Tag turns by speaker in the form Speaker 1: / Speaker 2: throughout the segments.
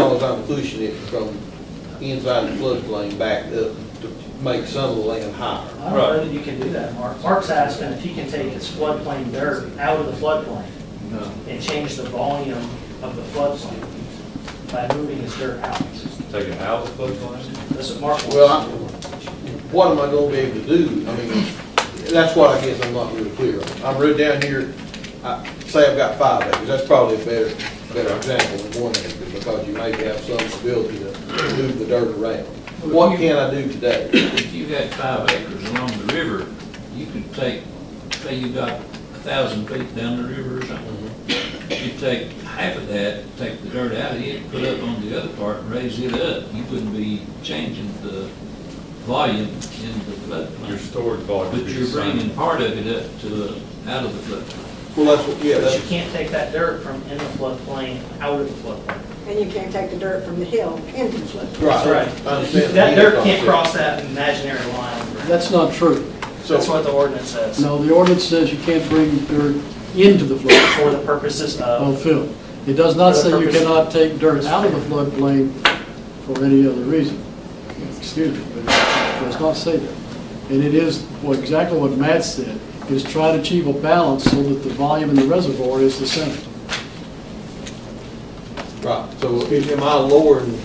Speaker 1: trying to cushion it from inside the floodplain back up to make some of the land higher.
Speaker 2: I don't know that you can do that, Mark. Mark's asking if he can take his floodplain dirt out of the floodplain
Speaker 3: No,
Speaker 2: and change the volume of the floodplain by moving his dirt out.
Speaker 3: take it out of the floodplain?
Speaker 2: That's what Mark wants.
Speaker 1: Well, I, what am I gonna be able to do? I mean, that's what I guess I'm not really clear on. I'm right down here, I, say I've got five acres, that's probably a better, better example than one acre, because you may have some ability to move the dirt around. What can I do today?
Speaker 4: If you got five acres along the river, you could take, say you got a thousand feet down the river or something. You take half of that, take the dirt out of it, put up on the other part and raise it up. You wouldn't be changing the volume in the
Speaker 3: Your
Speaker 4: floodplain.
Speaker 3: storage volume would
Speaker 4: But
Speaker 3: be
Speaker 4: you're
Speaker 3: the
Speaker 4: bringing
Speaker 3: same.
Speaker 4: part of it up to, out of the floodplain.
Speaker 1: Well, that's, what yeah,
Speaker 2: But you
Speaker 1: that's,
Speaker 2: can't take that dirt from in the floodplain out of the floodplain.
Speaker 5: And you can't take the dirt from the hill into the flood.
Speaker 1: right, I
Speaker 2: That's
Speaker 1: understand.
Speaker 2: That dirt can't cross that imaginary line.
Speaker 6: That's not true.
Speaker 2: That's
Speaker 1: So,
Speaker 2: what the ordinance says,
Speaker 6: No, the ordinance says you can't bring dirt into the flood
Speaker 2: for the purposes of,
Speaker 6: fill. It does not say you cannot take dirt out of the floodplain for any other reason. Excuse me, but it does not say that. And it is, well, exactly what Matt said, is try to achieve a balance so that the volume in the reservoir is the same.
Speaker 1: right, so am I lowering,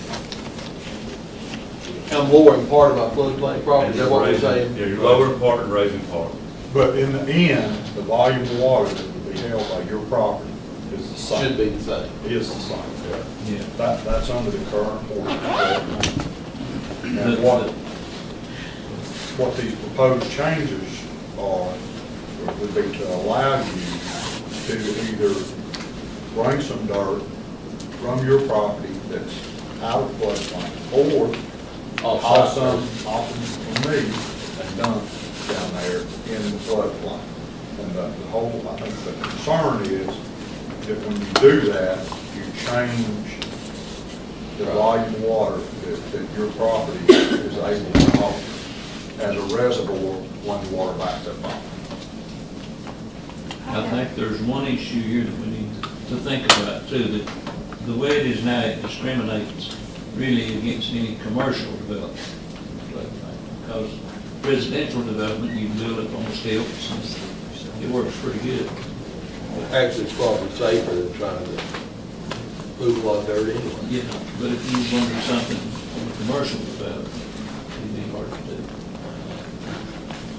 Speaker 1: I'm lowering part of my floodplain property,
Speaker 3: And
Speaker 1: is
Speaker 3: you're
Speaker 1: that what we're
Speaker 3: raising-
Speaker 1: saying?
Speaker 3: Yeah, you're lowering part and raising part.
Speaker 7: But in the end, the volume of water that would be held by your property is the same.
Speaker 1: Should be the same.
Speaker 7: Is the same, yeah.
Speaker 4: Yeah.
Speaker 7: That, that's under the current ordinance.
Speaker 4: But
Speaker 7: And what,
Speaker 4: the-
Speaker 7: what these proposed changes are, would be to allow you to either bring some dirt from your property that's out of floodplain, or
Speaker 1: Off-site.
Speaker 7: haul some off of me and dump down there in the floodplain. And the the whole, I think the concern is that when you do that, you change the volume of water that, that your property is able to hold as a reservoir when the water backs up on.
Speaker 4: I think there's one issue here that we need to think about too, that the way it is now, it discriminates really against any commercial development. Because residential development, you build it on stilts, and it works pretty good.
Speaker 1: Actually, it's probably safer than trying to move a lot of dirt anyway.
Speaker 4: Yeah, but if you want to do something on the commercial development, it'd be hard to do.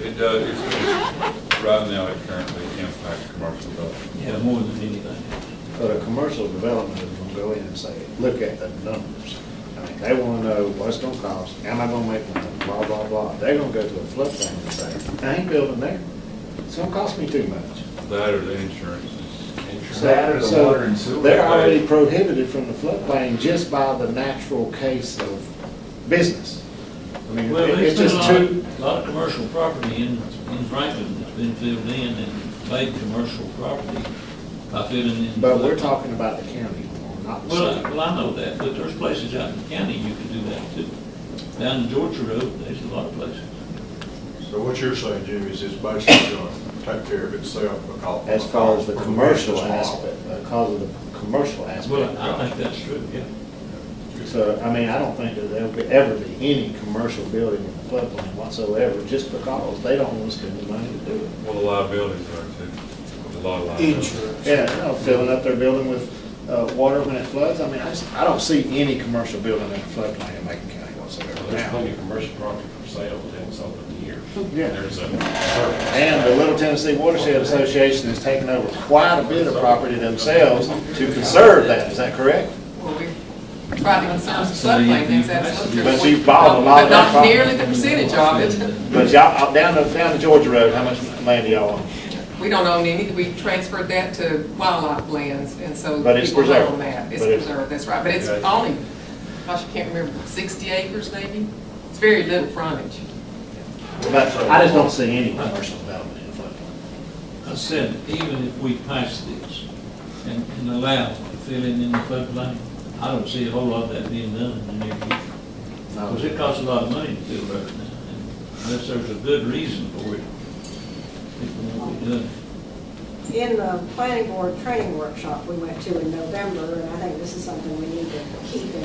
Speaker 3: It does, it's, it's, right now, it currently impacts commercial development.
Speaker 4: Yeah, more than anything.
Speaker 8: But a commercial development is gonna go in and say, look at the numbers. I mean, they wanna know what's gonna cost, am I gonna make money, blah, blah, blah. They're gonna go to a floodplain and say, I ain't building there, it's gonna cost me too much.
Speaker 3: That or the insurance is.
Speaker 8: So, so they're already prohibited from the floodplain just by the natural case of business. I mean,
Speaker 4: Well,
Speaker 8: it-
Speaker 4: there's
Speaker 8: it's
Speaker 4: been a
Speaker 8: just
Speaker 4: lot,
Speaker 8: too,
Speaker 4: a lot of commercial property in, in Franklin that's been filled in and made commercial property by filling in.
Speaker 8: but we're talking about the county, not the
Speaker 4: Well, I-
Speaker 8: city.
Speaker 4: well, I know that, but there's places out in the county you can do that too. Down in Georgia Road, there's a lot of places.
Speaker 7: So what you're saying, Jimmy, is it's basically gonna take care of itself because.
Speaker 8: As far as the
Speaker 7: because
Speaker 8: commercial
Speaker 7: it's model.
Speaker 8: aspect, because of the commercial aspect.
Speaker 4: Well, I think that's true, yeah.
Speaker 8: So, I mean, I don't think that there'll be, ever be any commercial building in the floodplain whatsoever, just because they don't want to spend the money to do it.
Speaker 3: Well, the liabilities are too, There's a lot of liabilities.
Speaker 1: Insurance.
Speaker 8: Yeah, you know, filling up their building with, uh, water when it floods, I mean, I just, I don't see any commercial building in the floodplain in Macon County whatsoever
Speaker 9: There's
Speaker 8: now.
Speaker 9: plenty of commercial property for sale within something years.
Speaker 8: Yeah.
Speaker 9: There's a,
Speaker 8: And the Little Tennessee Watershed Association has taken over quite a bit of property themselves to conserve that, is that correct?
Speaker 10: Well, we tried to conserve the
Speaker 4: So you-
Speaker 10: floodplain, things
Speaker 4: you-
Speaker 10: that's.
Speaker 8: But you bought a lot of that
Speaker 10: Not
Speaker 8: property.
Speaker 10: nearly the percentage of it.
Speaker 8: But y'all, uh, down to, down to Georgia Road, how much land do y'all own?
Speaker 10: We don't own any, we transferred that to wildlife lands, and so.
Speaker 8: But it's
Speaker 10: people own
Speaker 8: preserved.
Speaker 10: that. It's
Speaker 8: But it's-
Speaker 10: preserved, that's right, but it's
Speaker 3: Yeah.
Speaker 10: only, gosh, I can't remember, sixty acres maybe? It's very little frontage.
Speaker 8: But I just don't see any commercial development in the floodplain.
Speaker 4: I said, even if we pass this and, and allow filling in the floodplain, I don't see a whole lot of that being done in the near future. Because it costs a lot of money to build roads now, and unless there's a good reason for it, it won't be done.
Speaker 5: In the planning board training workshop we went to in November, and I think this is something we need to keep in